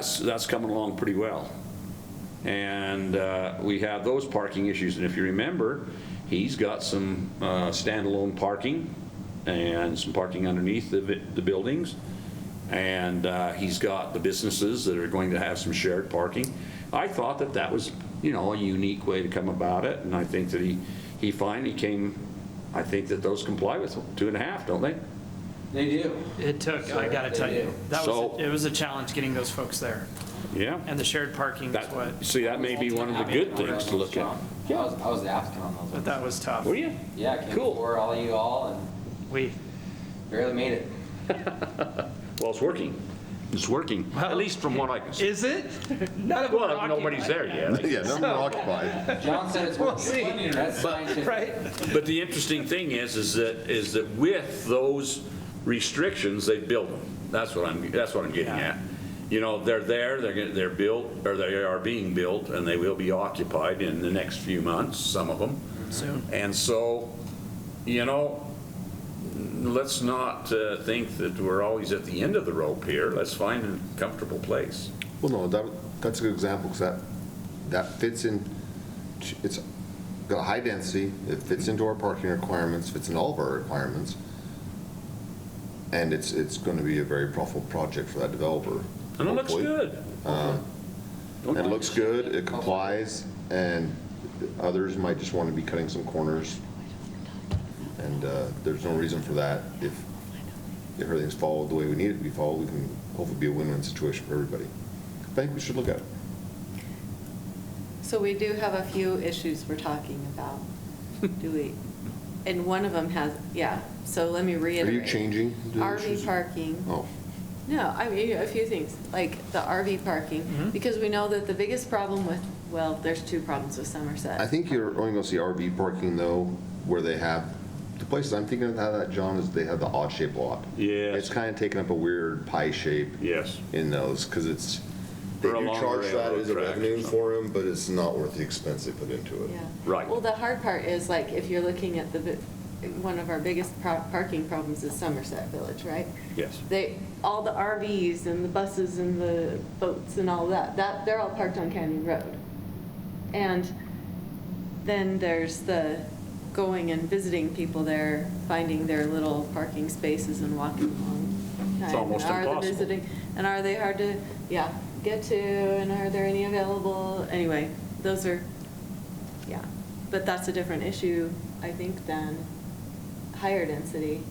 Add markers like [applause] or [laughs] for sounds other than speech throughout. That's, that's coming along pretty well. And uh, we have those parking issues, and if you remember, he's got some uh, standalone parking and some parking underneath the, vi- the buildings. And uh, he's got the businesses that are going to have some shared parking. I thought that that was, you know, a unique way to come about it, and I think that he, he finally came, I think that those comply with two and a half, don't they? They do. It took, I gotta tell you, that So- was, it was a challenge getting those folks there, Yeah. and the shared parking is what, That, see, that may be one of the good things to look at. I was, I was the applicant on those but ones. that was tough. Were you? Yeah, I came Cool. before all you all and We, barely made it. Well, it's working. It's working, at least from what I can see. is it? [laughs] None of them Well, are nobody's there [laughs] yet. Yeah, none were occupied. John [laughs] said it's We'll working. see. That's occupied, scientific. Right? But the interesting thing is, is that, is that with those restrictions, they build them. That's what I'm, that's what I'm getting Yeah. at. You know, they're there, they're, gonna- they're built, or they are being built, and they will be occupied in the next few months, some of them. Soon. And so, you know, let's not uh, think that we're always at the end of the rope here. Let's find a comfortable place. Well, no, that, that's a good example, because that, that fits in, it's got a high density, it fits into our parking requirements, fits in all of our requirements, and it's, it's going to be a very profitable project for that developer. And it looks hopefully. Uh, good. Don't It mind. looks good, it complies, and others might just want to be cutting some corners, and uh, there's no reason for that. If, if everything's followed the way we need it to be followed, we can hopefully be a win-win situation for everybody. I think we should look at it. So we do have a few issues we're talking about, do we? And one of them has, yeah, so let me Are reiterate. you changing? the issues? RV parking. Oh, No, I mean, a few things, like the RV parking, because we know that the biggest problem with, well, there's two problems with I Somerset. think you're only going to see RV parking though, where they have, the places I'm thinking of how that, John, is they have the odd-shaped lot. Yes. It's kind of taken up a weird pie shape. Yes. in those, because it's, they Or do along the charge that railroad as a tracks or revenue something. for them, but it's not worth the expense they put into it. Yeah. Right. Well, the hard part is like, if you're looking at the, bi- one of our biggest pro- parking problems is Somerset Village, right? Yes. They, all the RVs and the buses and the boats and all that, that, they're all parked on Canyon Road. And then there's the going and visiting people there, finding their little parking spaces and walking along. It's And almost are the impossible. visiting- And are they hard to, yeah, get to, and are there any available? Anyway, those are, yeah, but that's a different issue, I think, than higher density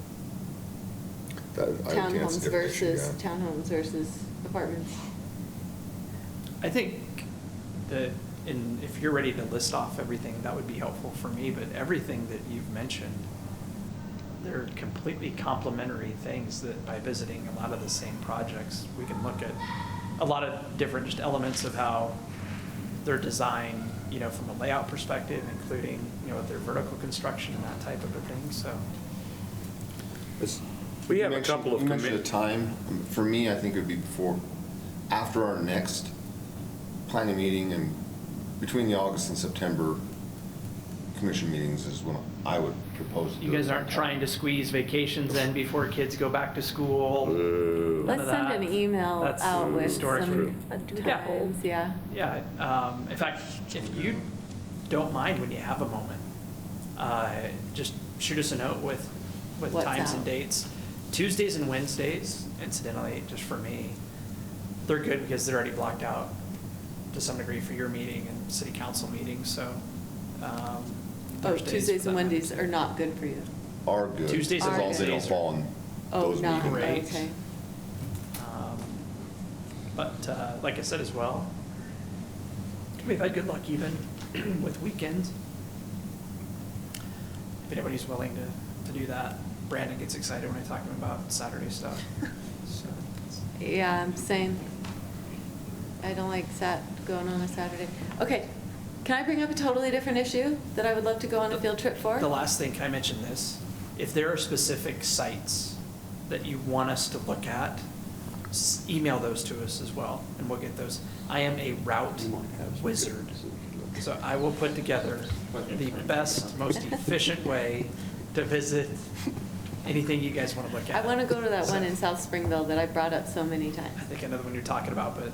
That- I would think that's a townhomes different issue, versus, yeah. townhomes versus apartments. I think that, and if you're ready to list off everything, that would be helpful for me, but everything that you've mentioned, they're completely complementary things that by visiting a lot of the same projects, we can look at a lot of different just elements of how they're designed, you know, from a layout perspective, including, you know, with their vertical construction and that type of a thing, so. It's- We you have a mentioned- couple of You mentioned the commit- time. Um, For me, I think it would be before, after our next planning meeting and between the August and September commission meetings is when I would propose to do You it. guys aren't trying to squeeze vacations in before kids go back to Mm-hmm. school. Let's send an email um, That's out with storage some room. Yeah. times, yeah. Yeah, um, in fact, if you don't mind when you have a moment, uh, just shoot us a note with, with What's times and out? dates. Tuesdays and Wednesdays, incidentally, just for me, they're good because they're already blocked out to some degree for your meeting and city council meetings, so. um, Oh, Thursdays, Tuesdays for and that matter. Wednesdays are not good for you. Are good. Tuesdays and As long as they don't Wednesdays are- fall on Oh, those not, meetings. Great. okay. Um, But uh, like I said as well, we've had good luck even [clears throat] with weekends. If anybody's willing to, to do that, Brandon gets excited when I talk to him about Saturday [laughs] stuff. So, it's- Yeah, I'm saying, I don't like sat, going on a Saturday. Okay, can I bring up a totally different issue that I would love to go on a field trip for? The last thing, can I mention this? If there are specific sites that you want us to look at, s- email those to us as well, and we'll get those. I am a route wizard, so I will put together the best, most efficient way to visit anything you guys want to look at. I want to go to that one in So, South Springville that I brought up so many times. I think I know the one you're talking about, but